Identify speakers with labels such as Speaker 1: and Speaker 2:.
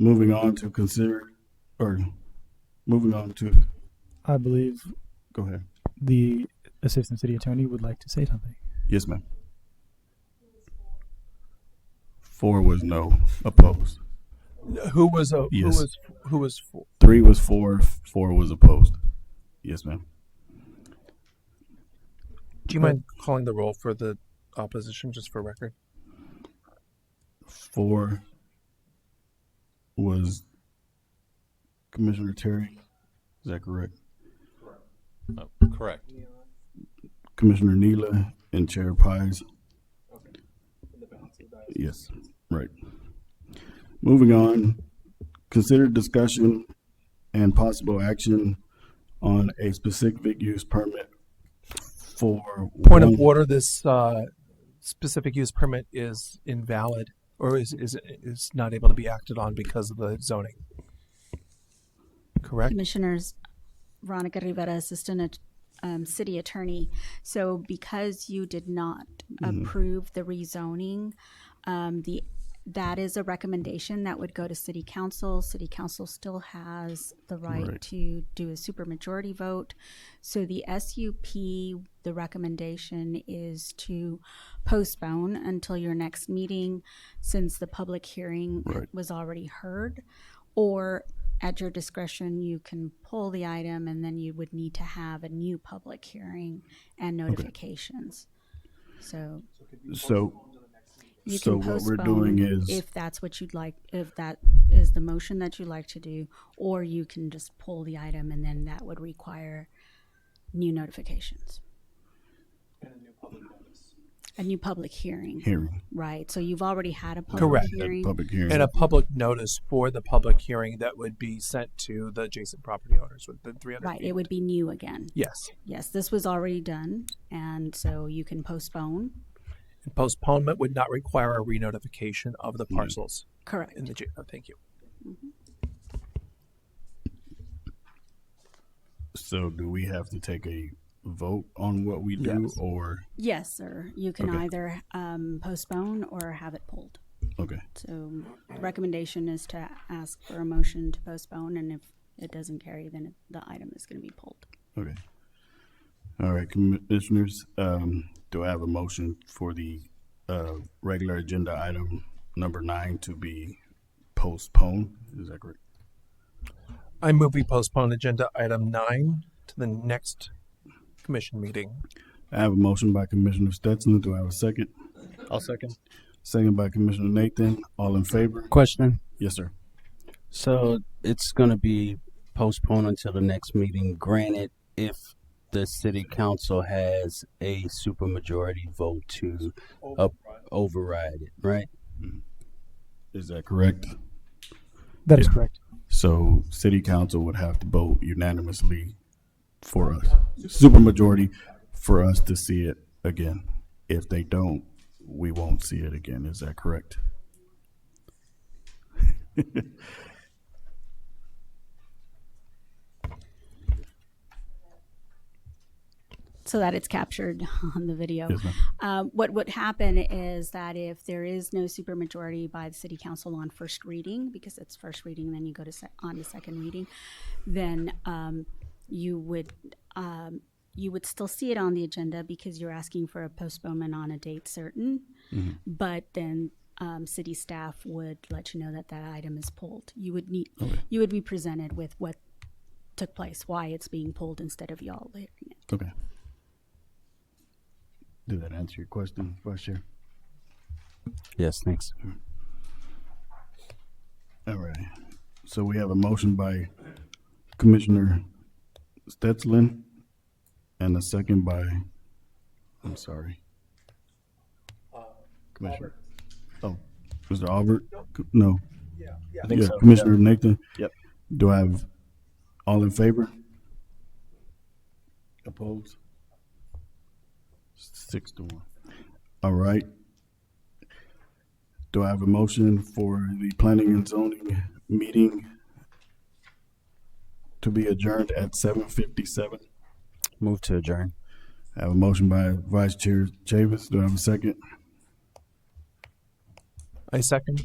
Speaker 1: Moving on to consider, or moving on to,
Speaker 2: I believe
Speaker 1: go ahead.
Speaker 2: the assistant city attorney would like to say something.
Speaker 1: Yes, ma'am. Four was no, opposed.
Speaker 3: Who was uh,
Speaker 1: Yes.
Speaker 3: who was who was for?
Speaker 1: Three was for, four was opposed. Yes, ma'am.
Speaker 3: Do you mind calling the roll for the opposition just for record?
Speaker 1: Four was Commissioner Terry. Is that correct?
Speaker 4: Oh, Correct.
Speaker 1: Commissioner Neela and Chair Pies. Yes, right. Moving on, consider discussion and possible action on a specific use permit for.
Speaker 3: Point of
Speaker 1: one-
Speaker 3: order: This uh, specific use permit is invalid, or is is is not able to be acted on because of the zoning. Correct.
Speaker 5: Commissioners Veronica Rivera, Assistant At- um, City Attorney. So because you did not approve the rezoning, um, the, that is a recommendation that would go to City Council. City Council still has the right
Speaker 1: Right.
Speaker 5: to do a supermajority vote. So the SUP, the recommendation is to postpone until your next meeting since the public hearing
Speaker 1: Right.
Speaker 5: was already heard. Or at your discretion, you can pull the item and then you would need to have a new public hearing and notifications. So
Speaker 1: So,
Speaker 5: you
Speaker 1: So
Speaker 5: can
Speaker 1: what we're
Speaker 5: postpone
Speaker 1: doing is-
Speaker 5: if that's what you'd like, if that is the motion that you'd like to do, or you can just pull the item and then that would require new notifications. And a new public hearing,
Speaker 1: hearing,
Speaker 5: right? So you've already had a public
Speaker 3: Correct.
Speaker 5: hearing.
Speaker 1: public hearing.
Speaker 3: And a public notice for the public hearing that would be sent to the adjacent property owners within 300
Speaker 5: Right,
Speaker 3: feet.
Speaker 5: it would be new again.
Speaker 3: Yes.
Speaker 5: Yes, this was already done, and so you can postpone.
Speaker 3: And postponement would not require a re-notification of the parcels
Speaker 5: Correct.
Speaker 3: in the, J- oh, thank you.
Speaker 1: So do we have to take a vote on what we do
Speaker 3: Yes.
Speaker 1: or,
Speaker 5: Yes, sir. You can
Speaker 1: Okay.
Speaker 5: either um, postpone or have it pulled.
Speaker 1: okay,
Speaker 5: So um, recommendation is to ask for a motion to postpone, and if it doesn't carry, then the item is going to be pulled.
Speaker 1: okay. All right, commissioners, um, do I have a motion for the, uh, regular agenda item number nine to be postponed? Is that correct?
Speaker 3: I move we postpone agenda item nine to the next commission meeting.
Speaker 1: I have a motion by Commissioner Stetson. Do I have a second?
Speaker 4: I'll second.
Speaker 1: Second by Commissioner Nathan. All in favor?
Speaker 6: Question.
Speaker 1: Yes, sir.
Speaker 6: So it's going to be postponed until the next meeting. Granted, if the city council has a supermajority vote to up- override it, right?
Speaker 1: Is that correct?
Speaker 2: That is correct.
Speaker 1: So city council would have to vote unanimously for us, supermajority for us to see it again. If they don't, we won't see it again. Is that correct?
Speaker 5: so that it's captured on the video.
Speaker 1: Yes, ma'am.
Speaker 5: Um, what would happen is that if there is no supermajority by the city council on first reading, because it's first reading, then you go to sec- on to second reading, then um, you would um, you would still see it on the agenda because you're asking for a postponement on a date certain.
Speaker 1: Mm-hmm.
Speaker 5: But then um, city staff would let you know that that item is pulled. You would need you would be presented with what took place, why it's being pulled instead of y'all hearing it.
Speaker 1: Okay. Did that answer your question, Vice Chair?
Speaker 6: Yes, thanks.
Speaker 1: All right. So we have a motion by Commissioner Stetslin and a second by, I'm sorry. Uh, Commissioner. Oh, Mr. Albert? No.
Speaker 4: I think
Speaker 1: Yeah,
Speaker 4: so.
Speaker 1: Commissioner Nathan?
Speaker 4: Yep.
Speaker 1: Do I have, all in favor? Opposed? Six to one. All right. Do I have a motion for the planning and zoning meeting to be adjourned at seven fifty-seven?
Speaker 6: Move to adjourn.
Speaker 1: I have a motion by Vice Chair Chavis. Do I have a second?
Speaker 3: I second.